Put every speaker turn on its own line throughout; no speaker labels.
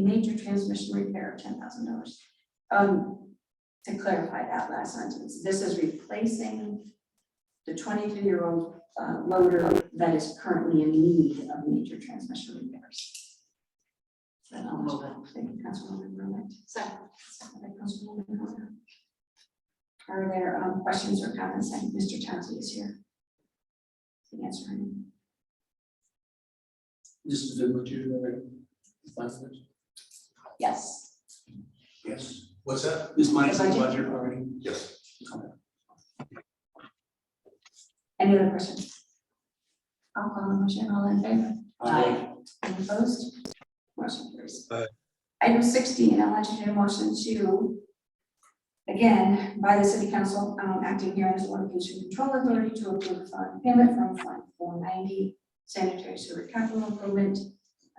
major transmission repair, ten thousand dollars. Um, to clarify that last sentence, this is replacing the twenty-three-year-old uh, loader that is currently in need of major transmission repairs. So I'll move it. Thank you, Councilwoman Rowland. Second. Second by Councilwoman Rowland. Are there um, questions or comments? I think Mr. Chauncey is here. To answer any.
This is the material budget?
Yes,
Yes.
What's that?
This minus the
Budget?
budget already?
Yes.
any other questions? I'll call the motion, all in favor? Any opposed? Motion carries.
Aye.
Item sixteen, I'll entertain a motion to, again, by the city council, um, acting here as the Water Pollution Control Authority to approve fund payment from Fund four ninety sanitary sewer capital improvement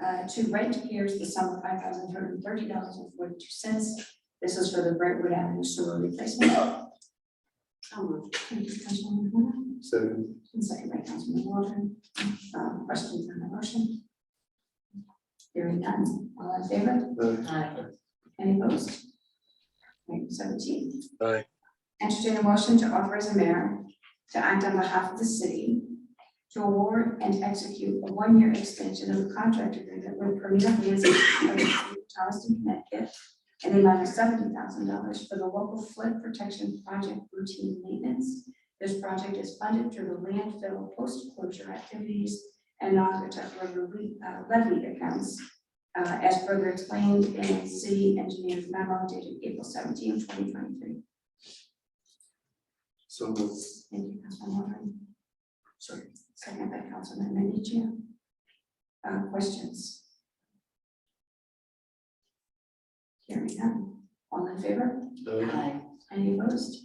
uh, to Brent Pierce the sum of five thousand two hundred and thirty dollars and forty-two cents. This is for the Brentwood Avenue sewer replacement. So moved. Thank you, Councilwoman Horn.
So,
And second by Councilman Waldron. Um, Questions on the motion? Hearing none, all in favor?
uh,
Aye. Any opposed? Item seventeen.
Aye.
Entertain a motion to authorize the mayor to act on behalf of the city to award and execute a one-year extension of the contract agreement with Premier Music of the City of Charleston, Connecticut, and the amount of seventy thousand dollars for the local flood protection project routine maintenance. This project is funded through the landfill post-closure activities and non-protected levy uh, levy accounts uh, as further explained in city engineer's memo dated April 17, 2023.
so moved.
Thank you, Councilman Warren. Sorry. Second by Councilman Minichia. Uh, questions? Hearing none, all in favor?
Aye.
Any opposed?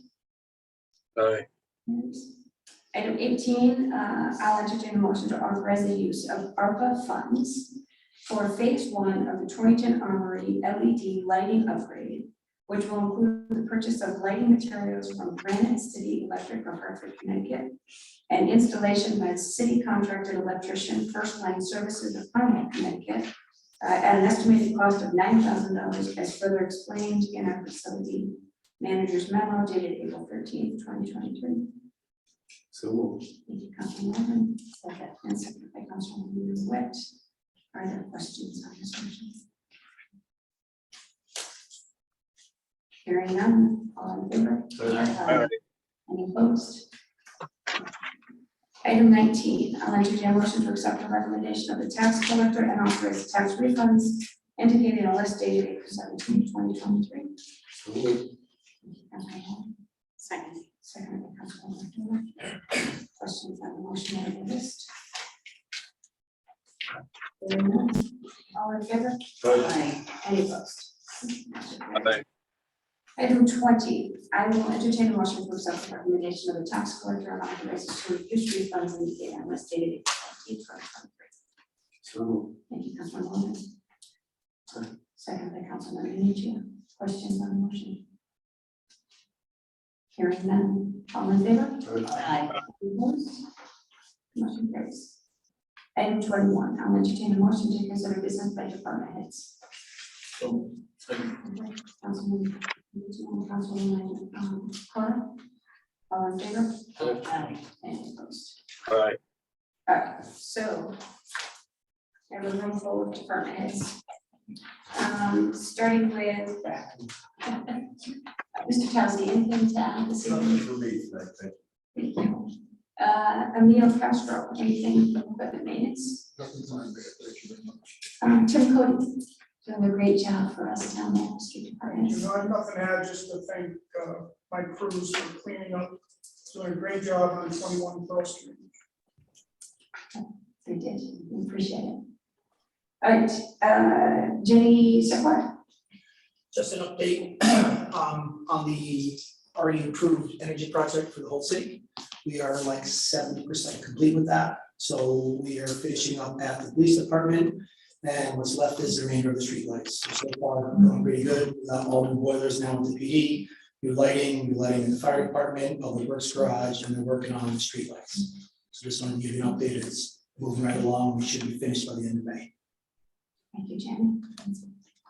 Aye.
Yes. Item eighteen, uh, I'll entertain a motion to authorize the use of ARPA funds for phase one of the Torrington Armory LED lighting upgrade, which will include the purchase of lighting materials from Granite City Electric of Hartford, Connecticut, and installation by the city contracted electrician First Line Services of Hartford, Connecticut, uh, at an estimated cost of nine thousand dollars as further explained in our facility manager's memo dated April thirteenth, twenty twenty-three.
So moved.
Thank you, Councilman Levin, second, and second by Councilwoman Witt. Are there questions on this motion? Hearing none, all in favor? Aye. Any opposed? Item nineteen, I'll entertain a motion to accept the recommendation of the tax collector and authorize tax refunds indicated in a list dated April 17, 2023.
So moved.
Second. Second by Councilwoman Miller. Questions on the motion or the list? Hearing none. All in favor? Any opposed? Motion carries.
Aye.
Item twenty, I will entertain a motion to accept the recommendation of the tax collector and authorize the sewer use refunds indicated on list dated April 17, 2023.
So moved.
Thank you, Councilman Lawson. Second by Councilman Minichia. Questions on the motion? Hearing none. All in favor?
Aye.
Opposed? Motion carries. Item twenty-one, I'll entertain a motion to consider business by department heads.
So, second.
Councilman Minichia and Councilwoman um, Cora. All in favor?
Aye.
Any opposed?
Aye.
All right, so. I have a room full of department heads. Um, starting with. Mr. Townsend, anything to add this evening?
for me tonight, thank
Thank you. Uh, Emil Castro, anything but the minutes?
Nothing fine, thank you very much.
Um, Tim Cody, doing a great job for us down there, in the street department.
You know, I have nothing to add, just to thank uh, my crews for cleaning up, doing a great job on 21 Pearl Street.
They did, we appreciate it. All right, uh, Jenny Sequoia,
just an update um, on the already approved energy project for the whole city. We are like seventy percent complete with that, so we are finishing up at the police department. And what's left is the remainder of the streetlights. So far, we're going pretty good. Uh, All the boilers now with the PD, new lighting, new lighting in the fire department, public works garage, and they're working on the streetlights. So just wanted to give you an update. It's moving right along. We should be finished by the end of May.
thank you, Jenny.